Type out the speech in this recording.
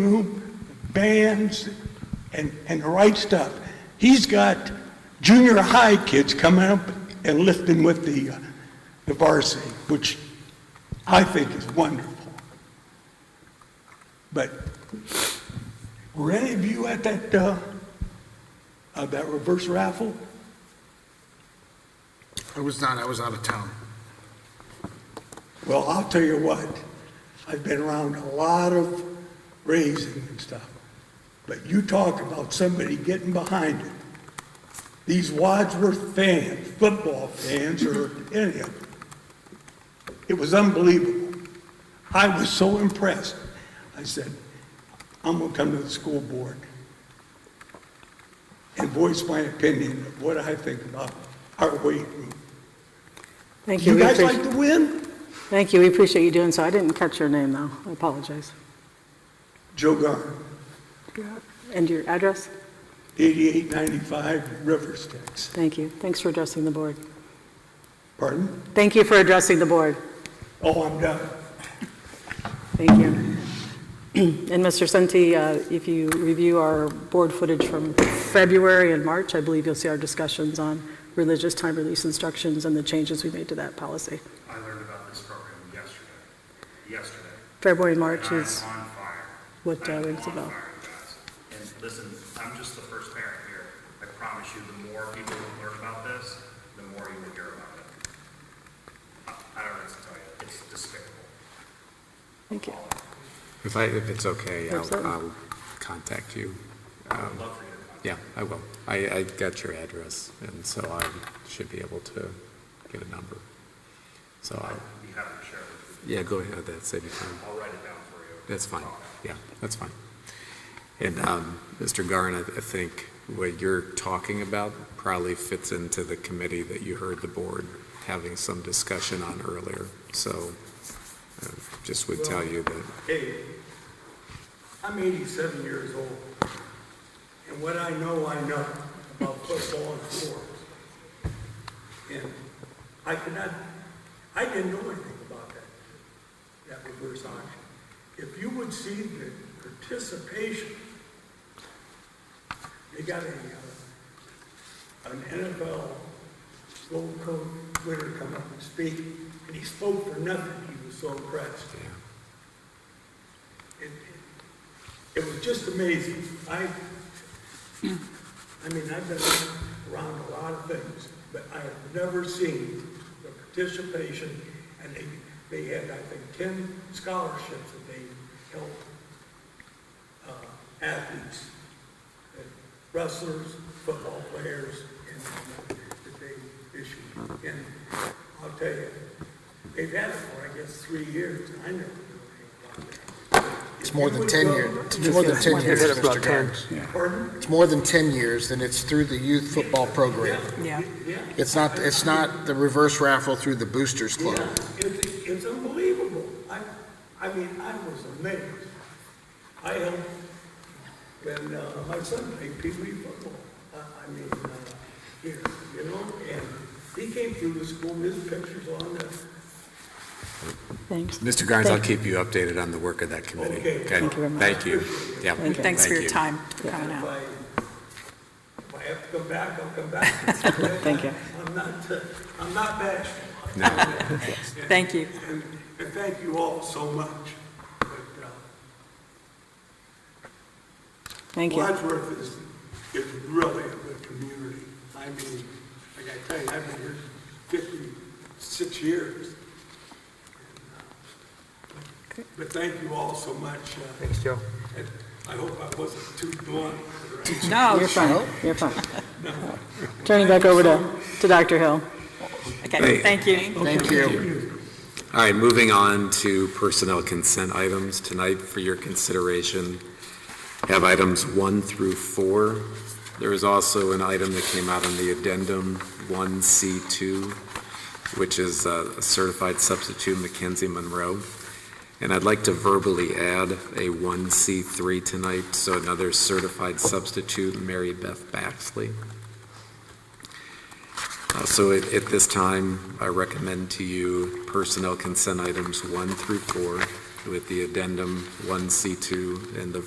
group, bands, and, and the right stuff. He's got junior high kids coming up and lifting with the, uh, the varsity, which I think is wonderful. But were any of you at that, uh, uh, that reverse raffle? I was not, I was out of town. Well, I'll tell you what, I've been around a lot of raising and stuff, but you talk about somebody getting behind it. These Wadsworth fans, football fans, or any of them, it was unbelievable. I was so impressed. I said, I'm gonna come to the school board and voice my opinion of what I think about our weight room. Thank you. You We guys appreciate- like to win? Thank you, we appreciate you doing so. I didn't catch your name, though. I apologize. Joe Garner. And your address? 8895 Rivers, Texas. Thank you. Thanks for addressing the board. Pardon? Thank you for addressing the board. Oh, I'm done. Thank you. And Mr. Senti, uh, if you review our board footage from February and March, I believe you'll see our discussions on religious time release instructions and the changes we made to that policy. I learned about this program yesterday, yesterday. February and March And I'm is on fire. what uh, I'm rings a on bell. fire, guys. And listen, I'm just the first parent here. I promise you, the more people who learn about this, the more you will hear about it. I I don't know what to tell you, it's despicable. Thank you. If I, if it's okay, I'll, Absolutely. I'll contact you. Um, I would love for you to contact Yeah, I will. I, I got your address, and so I should be able to get a number. So, I'll me, be happy to share with you. yeah, go ahead, that's any time. I'll write it down for you. That's fine, yeah, that's fine. And, um, Mr. Garn, I I think what you're talking about probably fits into the committee that you heard the board having some discussion on earlier. So, uh, just would tell you that Hey, I'm 87 years old, and what I know, I know about football and sports. And I could not, I didn't know anything about that, that reverse auction. If you would see the participation, they got a, uh, an NFL slow coach, winner come up and speak, and he spoke for nothing, he was so impressed. It- It was just amazing. I, I mean, I've been around a lot of things, but I have never seen the participation, and they, they had, I think, ten scholarships that they helped uh, athletes, uh, wrestlers, football players, and uh, that they issued. And I'll tell you, they've had it for, I guess, three years, and I never knew anything about it. It's more than 10 years, it's more than 10 years, Mr. Garnes. Pardon? It's more than 10 years, and it's through the youth football program. Yeah. It's not, it's not the reverse raffle through the Boosters Club. Yeah, it's, it's unbelievable. I, I mean, I was amazed. I helped when uh, my son played Pee Wee football. I, I mean, uh, here, you know, and he came through the school, his pictures on the, Thanks. Mr. Garnes, I'll Thank- keep you updated on the work of that committee. Okay. Thank you very much. Thank you. Yeah. Thank you. Thanks for your Thank you. time coming if out. I, if I have to come back, I'll come back. Thank you. I'm not, uh, I'm not bashful. Thank you. And, and thank you all so much. But, uh, Thank you. Wadsworth is, is really a good community. I mean, like I tell you, I've been here fifty-six years. But thank you all so much. Thanks, Joe. I hope I wasn't too blunt. No, You're fine, you're fine. Turning back over to, to Dr. Hill. okay, thank you. Thank you. All right, moving on to personnel consent items. Tonight, for your consideration, have items one through four. There is also an item that came out in the addendum, 1C2, which is uh, a certified substitute Mackenzie Monroe. And I'd like to verbally add a 1C3 tonight, so another certified substitute, Mary Beth Baxley. Uh, So at, at this time, I recommend to you personnel consent items one through four with the addendum one C two and the